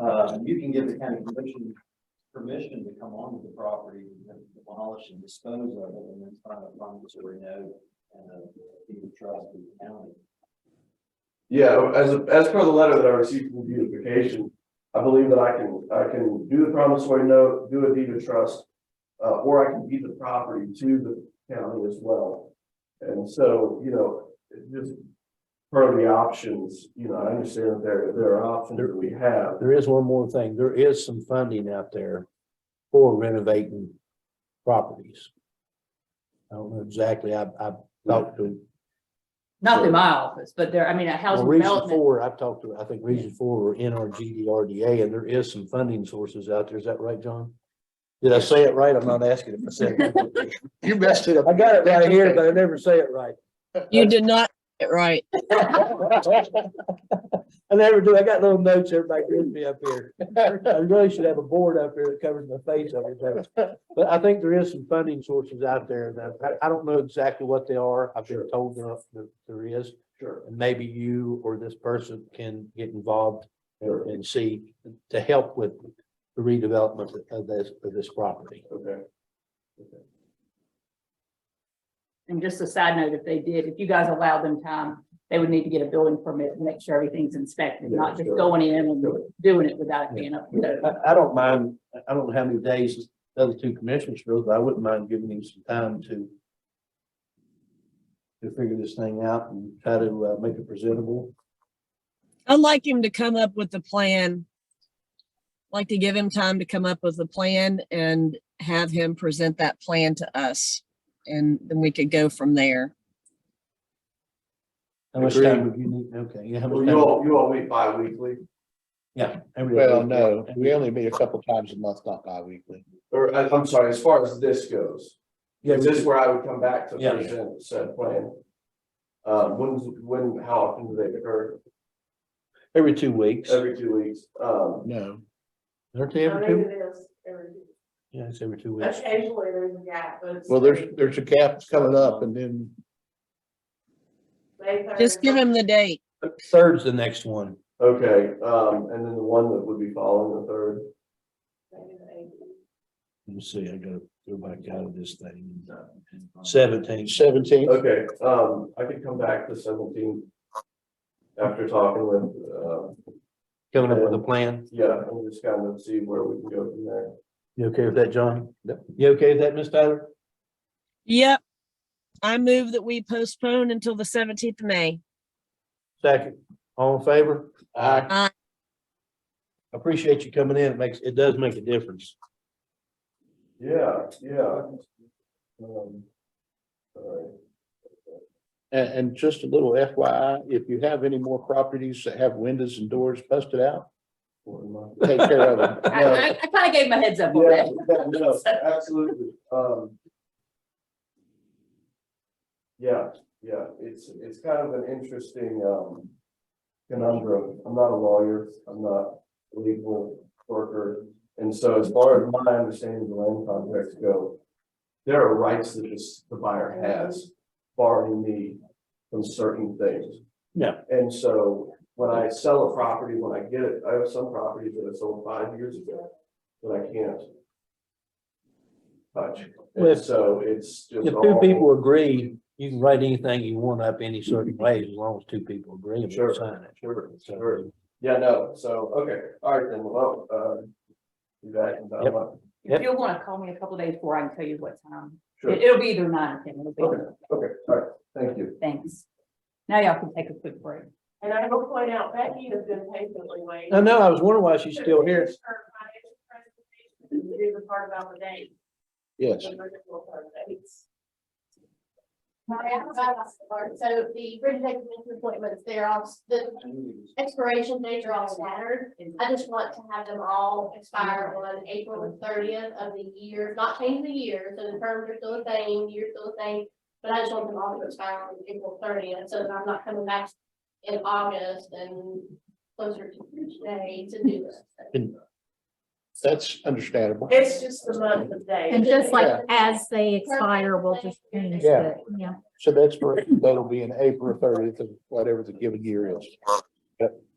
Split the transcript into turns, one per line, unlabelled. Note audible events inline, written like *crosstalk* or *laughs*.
uh, you can give the county commission permission to come onto the property, and demolish and dispose of it, and then sign a promissory note and a deed of trust with the county.
Yeah, as, as per the letter that I received from beautification, I believe that I can, I can do the promissory note, do a deed of trust. Uh, or I can deed the property to the county as well. And so, you know, it just per the options, you know, I understand that there, there are options that we have.
There is one more thing. There is some funding out there for renovating properties. I don't know exactly. I, I talked to,
Not through my office, but there, I mean, at
well,
housing
Region
development,
Four, I've talked to, I think Region Four or NRGDRDA, and there is some funding sources out there. Is that right, John? Did I say it right? I'm not asking if I said it. right.
*laughs* You messed it up.
I got it right here,
*laughs*
but I never say it right.
You did not get it right.
I never do. I got little notes everybody gives me up here. I really should have a board up here that covers my face every day. But I think there is some funding sources out there that I, I don't know exactly what they are. I've been told there, there- there is.
Sure.
And maybe you or this person can get involved and and see to help with the redevelopment of this, of this property.
Okay,
and just a side note, if they did, if you guys allowed them time, they would need to get a building permit and make sure everything's inspected,
Yeah,
not just
sure.
going in and
Sure.
doing it without it being up. to code.
I, I don't mind, I don't know how many days the other two commissioners feel, but I wouldn't mind giving you some time to to figure this thing out and try to uh, make it presentable.
I'd like him to come up with a plan. Like to give him time to come up with a plan and have him present that plan to us. And then we could go from there.
How much
Agreed.
time would you need? Okay, yeah, how
well,
much
you
time?
all, you all meet bi-weekly,
Yeah. every other
Well,
week.
no, we only meet a couple times a month, not bi-weekly.
or I- I'm sorry, as far as this goes.
Yeah,
Is this where I would come back to
Yeah.
present said plan? Uh, when's, when, how often do they occur?
every two weeks.
Every two weeks, um,
No.
Uh, Aren't they
I
every
think
two?
it is every week.
Yeah, it's every two weeks.
Occasionally there's a gap, but. it's
Well, there's,
every
there's a gap coming up and then,
May third.
Just give him the date.
Third's the next one.
okay, um, and then the one that would be following the third.
Let me see, I gotta go back out of this thing. Seventeen. Seventeen.
Okay, um, I could come back to seventeen. After talking with, uh,
Coming up with a plan.
yeah, and just kind of see where we can go from there.
You okay with that, John? Yep. You okay with that, Miss Tyler?
Yep. I move that we postpone until the seventeenth of May.
Second, all in favor?
Aye.
Aye.
Appreciate you coming in. It makes, it does make a difference.
Yeah, yeah. Um, Alright,
and, and just a little FYI, if you have any more properties that have windows and doors busted out,
what am I-
take care of
*laughs*
them.
I, I, I kind of gave my heads up on
Yeah,
that.
yeah, no, absolutely, um. Yeah, yeah, it's, it's kind of an interesting, um, conundrum, I'm not a lawyer, I'm not a legal worker. And so as far as my understanding of the land contracts go, there are rights that this, the buyer has, barring me from certain things.
Yeah.
And so when I sell a property, when I get it, I have some properties that I sold five years ago that I can't touch. And
Well,
so it's just.
If two
all-
people agree, you can write anything you want up any certain way as long as two people agree and
Sure,
sign it.
Sure,
So,
sure. Yeah, no, so, okay, all right then, well, uh, do that and that
Yep.
one.
Yep.
If you'll want to call me a couple days before, I can tell you what time.
Sure,
It- It'll be either nine or ten, it'll
okay,
be,
okay, all right, thank you.
thanks. Now y'all can take a quick break.
And I will point out Becky has been patiently waiting.
I know, I was wondering why she's still here.
Her financial presentation, and Do the part about the date.
Yes.
the virtual part of dates.
Hi, I'm Rebecca Clark. So the Bridge Commission appointments, they're all, the expiration dates are all staggered. I just want to have them all expire on April the thirtieth of the year, not change the year, so the terms are still the same, year's still the same. But I just want them all to expire on April thirtieth, so that I'm not coming back in August and closer to today to do this.
That's understandable.
It's just the month of days.
And just like
Yeah.
as they expire, we'll just change
Yeah.
it, yeah.
So that's, for- that'll be in April thirtieth of whatever the given year is.